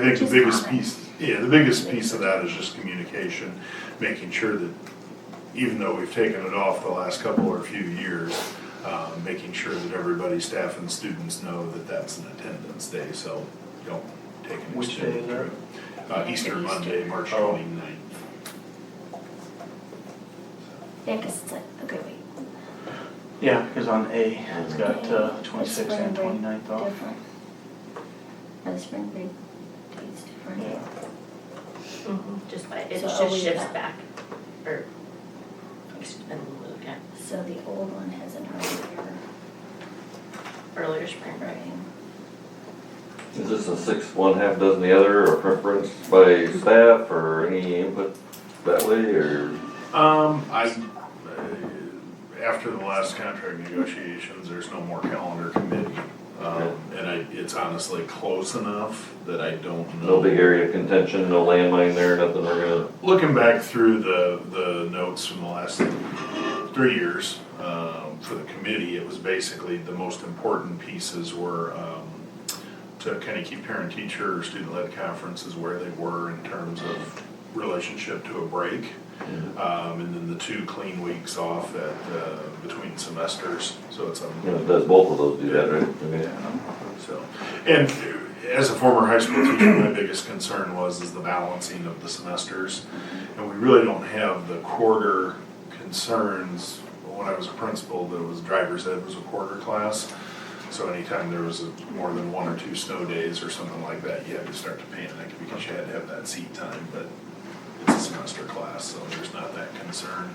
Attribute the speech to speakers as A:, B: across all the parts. A: I think the
B: Just
A: biggest
B: common.
A: piece, yeah, the biggest piece of that is just communication, making sure that even though we've taken it off the last couple or few years, um, making sure that everybody, staff and students know that that's an attendance day, so don't take an
C: Which day
A: extended
C: is that?
A: trip. Uh, Easter Monday, March
C: Oh.
A: twenty-ninth.
B: Yeah, 'cause it's like, okay, wait,
C: Yeah, because on A, it's got
B: Okay. It's
C: twenty-sixth and
B: spring break.
C: twenty-ninth off.
B: different. Oh, the spring break date's different.
C: Yeah,
D: Mm-hmm.
E: Just by, it
B: So
E: just
B: are we
E: shifts
B: back?
E: back, or, it's been moved, yeah,
B: So the old one has an earlier
E: earlier spring break.
B: writing.
F: Is this a six, one half dozen the other, or preference by staff, or any input that way, or?
A: Um, I, uh, after the last contract negotiations, there's no more calendar committee. Um, and I, it's honestly close enough that I don't know.
F: No big area of contention, no landmine there, nothing we're gonna,
A: Looking back through the, the notes from the last three years, um, for the committee, it was basically the most important pieces were, um, to kind of keep parent-teacher or student-led conferences where they were in terms of relationship to a break. Um, and then the two clean weeks off at, uh, between semesters, so it's a
F: you know, does both of those do that, right? Okay.
A: so, and as a former high school teacher, my biggest concern was is the balancing of the semesters. And we really don't have the quarter concerns. When I was a principal, there was driver's ed was a quarter class. So anytime there was a- more than one or two snow days or something like that, you had to start to panic because you had to have that seat time, but it's a semester class, so there's not that concern,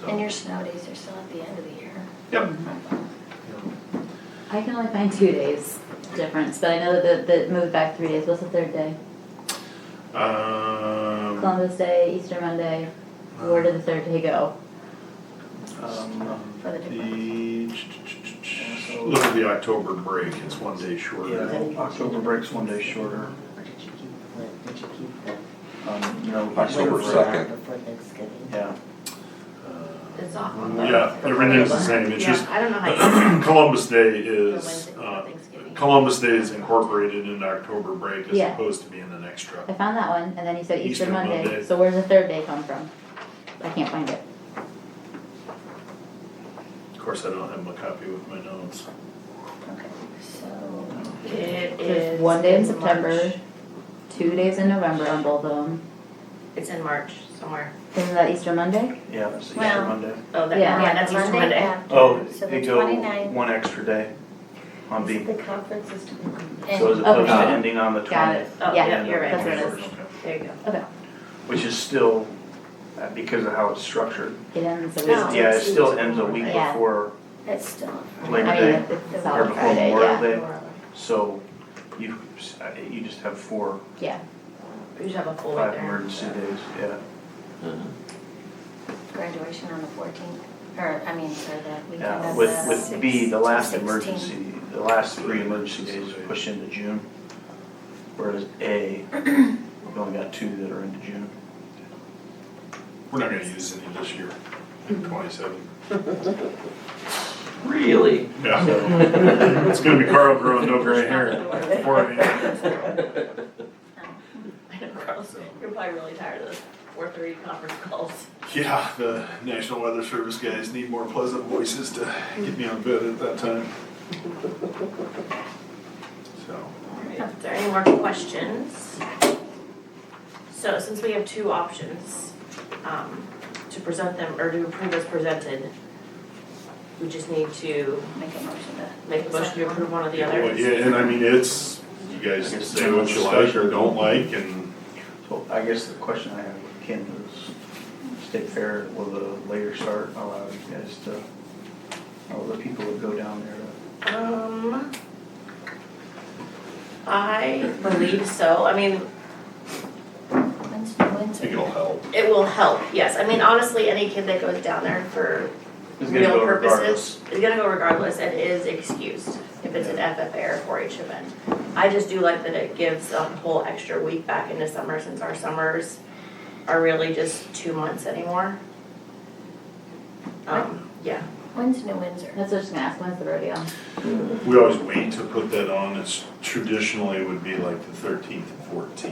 A: so.
B: And your snow days are still at the end of the year.
A: Yep. Yep.
D: I can only find two days difference, but I know that the, the moved back three days. What's the third day?
A: Um,
D: Columbus Day, Easter Monday. Where did the third day go?
C: um,
B: For the different.
A: The, look at the October break, it's one day shorter.
C: yeah, October break's one day shorter.
G: Or did you keep the, did you keep the?
C: Um, you know,
G: Wait
C: October
G: for-
C: second.
G: Before Thanksgiving.
C: Yeah,
E: It's off on the.
A: Mm, Yeah, everything's the same, it's
E: Yeah,
A: just
E: I don't know how you.
A: Columbus Day
E: for
A: is,
E: Wednesday before
A: uh,
E: Thanksgiving.
A: Columbus Day is incorporated into October break as
D: Yeah.
A: opposed to being an extra.
D: I found that one, and then you said Easter,
A: Easter
D: Monday.
A: Monday.
D: So where's the third day come from? I can't find it.
A: Of course, I don't have my copy with my notes.
B: Okay, so,
E: It
D: There's
E: is.
D: one day in
E: March.
D: September, two days in November on both of them.
E: It's in March somewhere.
D: Isn't that Easter Monday?
C: yeah, it's Easter
B: Well-
C: Monday.
E: Oh, that,
D: Yeah.
E: yeah, that's
B: the
E: Easter
B: Monday
E: Monday.
B: after,
C: Oh,
B: so the
C: they go
B: 29th
C: one extra day on B,
G: The conference is to be
C: so as
B: and-
D: Okay.
C: opposed to
D: Got it.
C: ending on the
D: Got it.
C: twentieth,
E: Oh,
D: Yeah,
E: yeah, you're
D: that's
E: right.
D: what it is.
A: Okay.
E: There you go.
D: Okay.
C: which is still, uh, because of how it's structured.
D: It ends a
C: It-
D: week.
B: No.
C: Yeah, it still ends a week
D: Yeah.
C: before,
B: It's still.
D: I
C: Labor
D: mean,
C: Day.
D: it's- it's
B: Or
D: on
C: before
D: Friday.
C: Memorial
D: Yeah.
C: Day. so you, uh, you just have four,
D: Yeah.
E: We just have a full week
C: five
E: there.
C: emergency days, yeah.
B: Graduation on the fourteenth, or, I mean, sorry, the weekend
C: Yeah,
B: of
C: with,
B: the
C: with B, the
B: six-
C: last
B: 16th.
C: emergency, the last three emergency days push into June. Whereas A, we've only got two that are into June.
A: We're not gonna use any this year, twenty-seven.
F: Really?
A: Yeah, it's gonna be Carl growing no gray hair before I
E: I know, Carlos, You're probably really tired of those four thirty conference calls.
A: Yeah, the National Weather Service guys need more pleasant voices to get me on bed at that time. So,
E: Alright, If there are any more questions? So since we have two options, um, to present them or to approve as presented, we just need to
B: Make a motion to.
E: make a motion to approve one or the
A: well,
E: other.
A: yeah, and I mean, it's, you guys say what you like or don't like and,
C: So I guess the question I have with Ken is, State Fair, will the later start allow you guys to, all the people that go down there? to-
E: Um, I believe so. I mean,
B: When's, when's?
A: I think it'll help.
E: it will help, yes. I mean, honestly, any kid that goes down there for
C: It's gonna
E: real
C: go regardless.
E: purposes is gonna go regardless and is excused if it's an FFA or four H event. I just do like that it gives a whole extra week back into summer since our summers are really just two months anymore. Um, yeah,
B: When's New Windsor?
D: That's what I was just gonna ask. When's the rodeo?
A: We always wait to put that on, it's traditionally would be like the thirteenth and fourteen.